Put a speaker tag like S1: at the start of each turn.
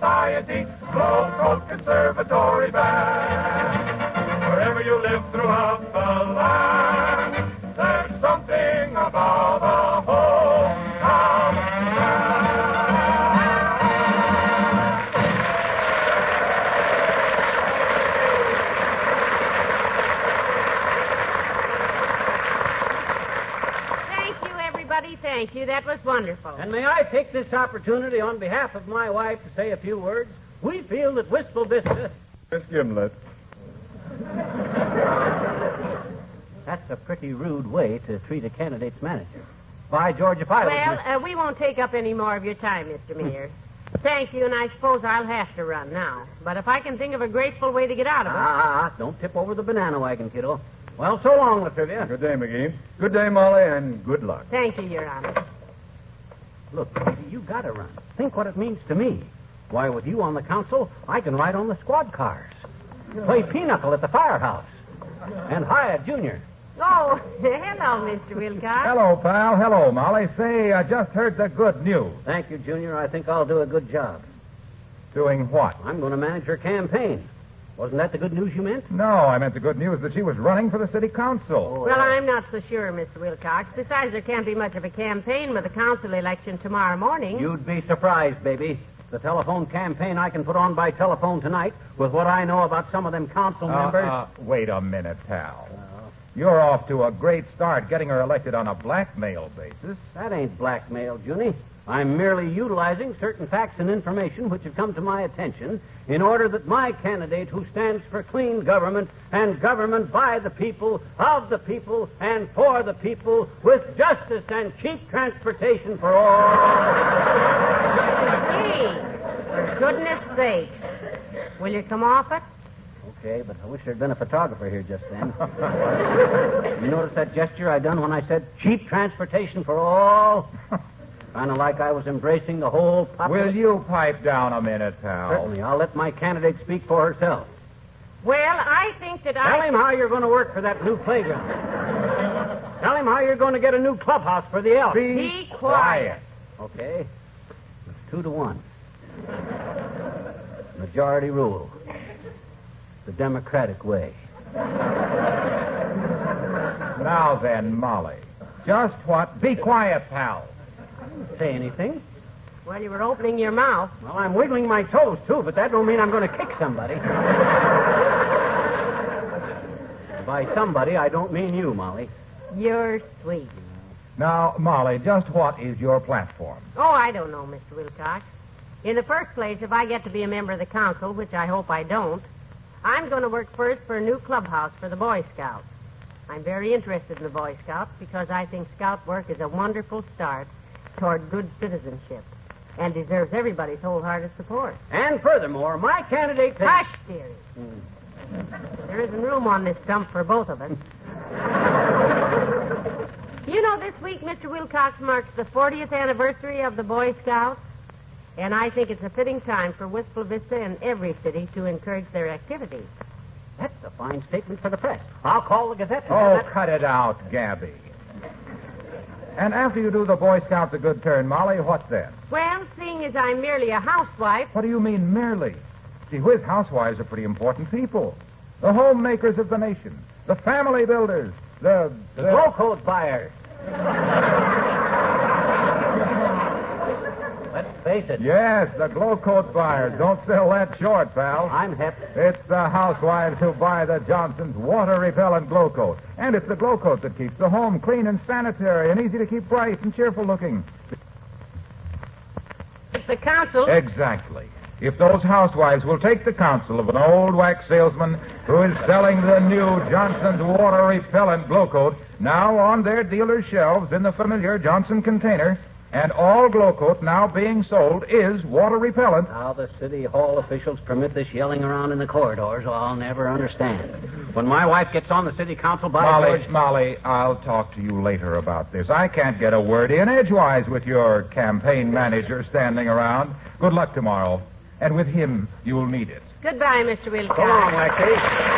S1: by a deep, slow-throat conservatory band. Wherever you live throughout the land, there's something about a hometown band.
S2: Thank you, everybody. Thank you. That was wonderful.
S3: And may I take this opportunity on behalf of my wife to say a few words? We feel that Wistful Vista.
S4: Miss Gimlet.
S3: That's a pretty rude way to treat a candidate's manager. By George, if I was
S2: Well,
S3: Miss-
S2: uh, we won't take up any more of your time, Mr. Mayor. Thank you, and I suppose I'll have to run now. But if I can think of a graceful way to get out of it.
S3: Ah, ah, don't tip over the banana wagon, kiddo. Well, so long, Latrivia.
S4: Good day, McGee. Good day, Molly, and good luck.
S2: Thank you, Your Honor.
S3: Look, Peavy, you gotta run. Think what it means to me. Why, with you on the council, I can ride on the squad cars, play pinochle at the firehouse, and hire Junior.
S2: Oh, hello, Mr. Wilcox.
S4: Hello, pal. Hello, Molly. Say, I just heard the good news.
S3: Thank you, Junior. I think I'll do a good job.
S4: Doing what?
S3: I'm going to manage her campaign. Wasn't that the good news you meant?
S4: No, I meant the good news that she was running for the city council.
S2: Well, I'm not so sure, Mr. Wilcox. Besides, there can't be much of a campaign with a council election tomorrow morning.
S3: You'd be surprised, baby. The telephone campaign I can put on by telephone tonight with what I know about some of them council
S4: Uh,
S3: members.
S4: uh, wait a minute, pal. You're off to a great start getting her elected on a blackmail basis.
S3: That ain't blackmail, Junie. I'm merely utilizing certain facts and information which have come to my attention in order that my candidate, who stands for clean government and government by the people, of the people, and for the people, with justice and cheap transportation for all.
S2: Gee, for goodness sake. Will you come off it?
S3: Okay, but I wish there'd been a photographer here just then. you notice that gesture I done when I said cheap transportation for all? kind of like I was embracing the whole population.
S4: Will you pipe down a minute, pal?
S3: Certainly. I'll let my candidate speak for herself.
S2: Well, I think that
S3: Tell
S2: I.
S3: him how you're going to work for that new playground. Tell him how you're going to get a new clubhouse for the elk.
S4: Be,
S2: Be quiet.
S3: Okay. It's two to one. Majority rule. The democratic way.
S4: Now then, Molly. Just what? Be quiet, pal.
S3: Say anything?
S2: Well, you were opening your mouth.
S3: Well, I'm wiggling my toes too, but that don't mean I'm going to kick somebody. By somebody, I don't mean you, Molly.
S2: You're sweet.
S4: Now, Molly, just what is your platform?
S2: Oh, I don't know, Mr. Wilcox. In the first place, if I get to be a member of the council, which I hope I don't, I'm going to work first for a new clubhouse for the Boy Scouts. I'm very interested in the Boy Scouts because I think scout work is a wonderful start toward good citizenship and deserves everybody's wholehearted support.
S3: And furthermore, my candidate. thinks-
S2: Hush, dearie. There isn't room on this dump for both of us. you know, this week, Mr. Wilcox marks the 40th anniversary of the Boy Scouts, and I think it's a fitting time for Wistful Vista and every city to encourage their activities.
S3: That's a fine statement for the press. I'll call the Gazette. and
S4: Oh,
S3: have that-
S4: cut it out, Gabby. And after you do the Boy Scouts a good turn, Molly, what then?
S2: Well, seeing as I'm merely a housewife,
S4: What do you mean, merely? See, whiz, housewives are pretty important people. The homemakers of the nation, the family builders, the.
S3: the glow coat buyers. Let's face it.
S4: Yes, the glow coat buyers. Don't sell that short, pal.
S3: I'm hep.
S4: It's the housewives who buy the Johnson's water repellent glow coat. And it's the glow coat that keeps the home clean and sanitary and easy to keep bright and cheerful looking.
S2: if the council.
S4: Eh? Exactly. If those housewives will take the counsel of an old wax salesman who is selling the new Johnson's water repellent glow coat now on their dealer's shelves in the familiar Johnson container, and all glow coat now being sold is water repellent.
S3: How the city hall officials permit this yelling around in the corridors, I'll never understand. When my wife gets on the city council by
S4: Molly,
S3: George-
S4: Molly, I'll talk to you later about this. I can't get a word in edgewise with your campaign manager standing around. Good luck tomorrow. And with him, you'll need it.
S2: Goodbye, Mr. Wilcox.
S3: Go on, Lexi.